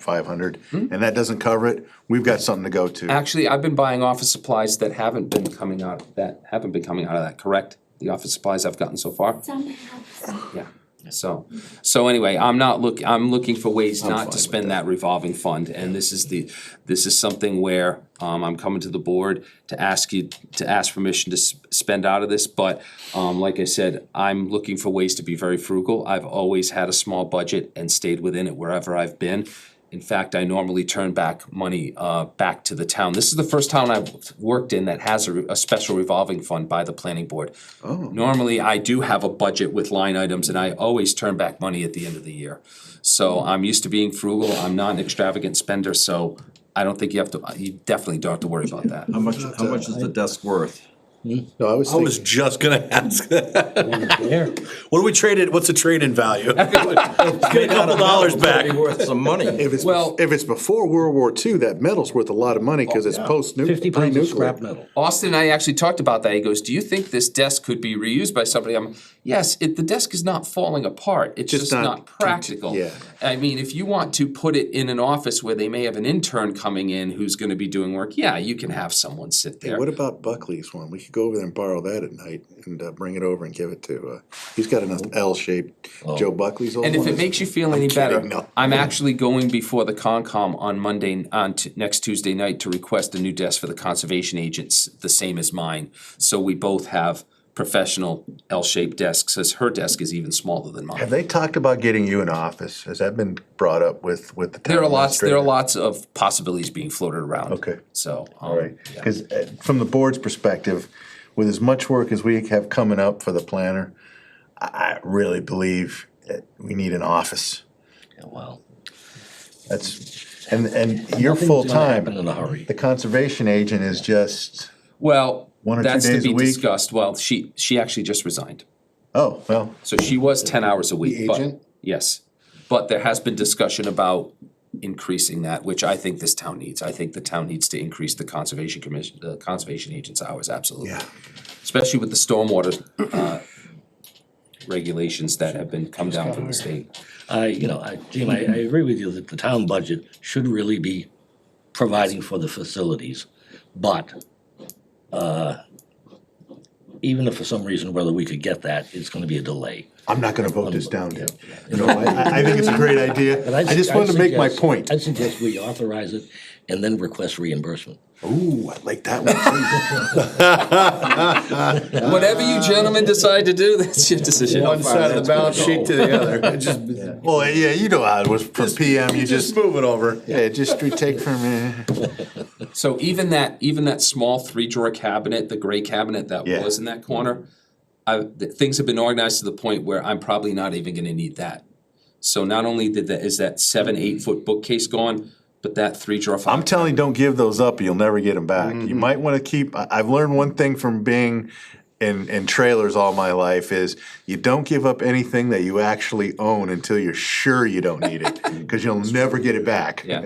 five hundred, and that doesn't cover it, we've got something to go to. Actually, I've been buying office supplies that haven't been coming out, that haven't been coming out of that, correct? The office supplies I've gotten so far, Somehow. yeah, so, so anyway, I'm not look, I'm looking for ways not to spend that revolving fund, and this is the, this is something where, um, I'm coming to the board to ask you, to ask permission to s- spend out of this, but, um, like I said, I'm looking for ways to be very frugal, I've always had a small budget and stayed within it wherever I've been, In fact, I normally turn back money uh back to the town. This is the first town I've worked in that has a re- a special revolving fund by the planning board. Oh. Normally, I do have a budget with line items and I always turn back money at the end of the year. So I'm used to being frugal, I'm not an extravagant spender, so I don't think you have to, you definitely don't have to worry about that. How much, how much is the desk worth? Hmm? No, I was I was just gonna ask that. What do we trade it, what's the trade-in value? Get a couple dollars back. Be worth some money. If it's, Well- Oh, if it's before World War II, that metal's worth a lot of money, cause it's post-nuclear. Fifty pounds of scrap metal. Austin and I actually talked about that. He goes, "Do you think this desk could be reused by somebody?" I'm, "Yes, it, the desk is not falling apart. It's just, not not, practical." yeah. I mean, if you want to put it in an office where they may have an intern coming in who's going to be doing work, yeah, you can have someone sit there. What about Buckley's one? We could go over there and borrow that at night and uh, bring it over and give it to, uh, he's got an L-shaped Joe Buckley's old one. Oh. and if it is- makes you feel any better, kidding, no. I'm actually going before the Concom on Monday, on t- next Tuesday night to request a new desk for the conservation agents, the same as mine. So we both have professional L-shaped desks, as her desk is even smaller than mine. Have they talked about getting you an office? Has that been brought up with, with the town There are lots, there are administrator? lots of possibilities being floated around. Oh, Okay. So. um, All right, yeah. because from the board's perspective, with as much work as we have coming up for the planner, I I really believe that we need an office. Wow. That's, and, and you're full-time. Happen in a hurry. The conservation agent is just, Well, One or two that's to days a be week? discussed. Well, she, she actually just resigned. oh, well, So she was ten hours a week, but, agent? yes. But there has been discussion about increasing that, which I think this town needs. I think the town needs to increase the conservation commission, the conservation agent's hours, absolutely. Yeah. Especially with the stormwater, uh, regulations that have been come down from the state. I, you know, I, Jim, I, I agree with you that the town budget should really be providing for the facilities, but, uh, even if for some reason whether we could get that, it's gonna be a delay. I'm not gonna vote this down, Dave. You know, I- I, I think it's a great idea. But I just wanted to make my suggest- point. I'd suggest we authorize it and then request reimbursement. Ooh, I like that one. too. Whatever you gentlemen decide to do, that's your decision. One side of the balance sheet to the other, It just, Well, yeah, you know how it was from PM, you just just, move it over. yeah, just retake from, uh, So even that, even that small three drawer cabinet, the gray cabinet that Yeah. was in that corner, I, th- things have been organized to the point where I'm probably not even gonna need that. So not only did that, is that seven, eight foot bookcase gone, but that three drawer. I'm telling you, don't give those up. You'll never get them back. You might want to keep. I, I've learned one thing from being in, in trailers all my life is you don't give up anything that you actually own until you're sure you don't need it because you'll never get it back. Yeah,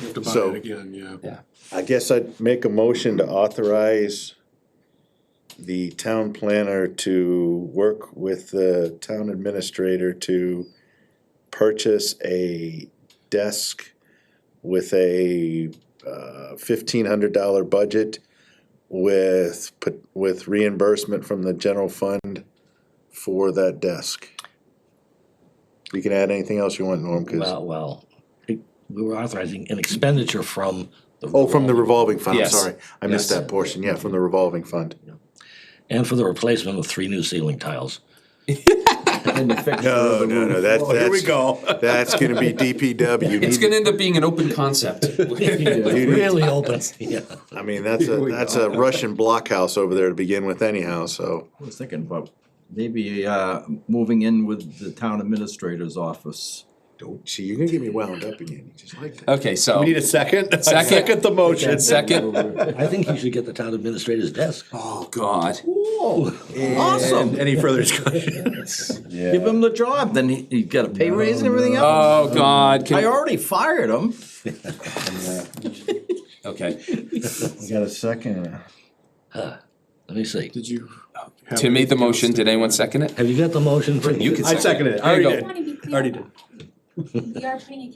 Have to buy So- it again, yeah. yeah. I guess I'd make a motion to authorize the town planner to work with the town administrator to purchase a desk with a uh, fifteen hundred dollar budget with, pot- with reimbursement from the general fund for that desk. You can add anything else you want, Norm, 'cause- Well, well, it- we were authorizing an expenditure from the. oh, from the revolving fund, I'm Yes. sorry. I missed Yes. that portion, yeah, from the revolving fund. And for the replacement of three new ceiling tiles. No, no, no, that, Here we that's, go. that's gonna be DPW. You It's need- gonna end up being an open concept. Really open, yeah. I mean, that's a, that's a Russian blockhouse over there to begin with anyhow, so. I was thinking about maybe, uh, moving in with the town administrator's office. Don't, see, you're gonna get me wound up again, you just like that. Okay, so, We need a second? I Second. Second the motion. second, I think you should get the town administrator's desk. oh god. Awesome. And Any further discussion? Give him the job, then he, he'd get a pay raise and everything else. Oh god, I can, already fired him. okay. You got a second? Let me see. Did you? have- Tim made the motion, did anyone second it? Have you got the motion? for You can I seconded it, I There you already go. I did. want to be clear. Already did. We are putting a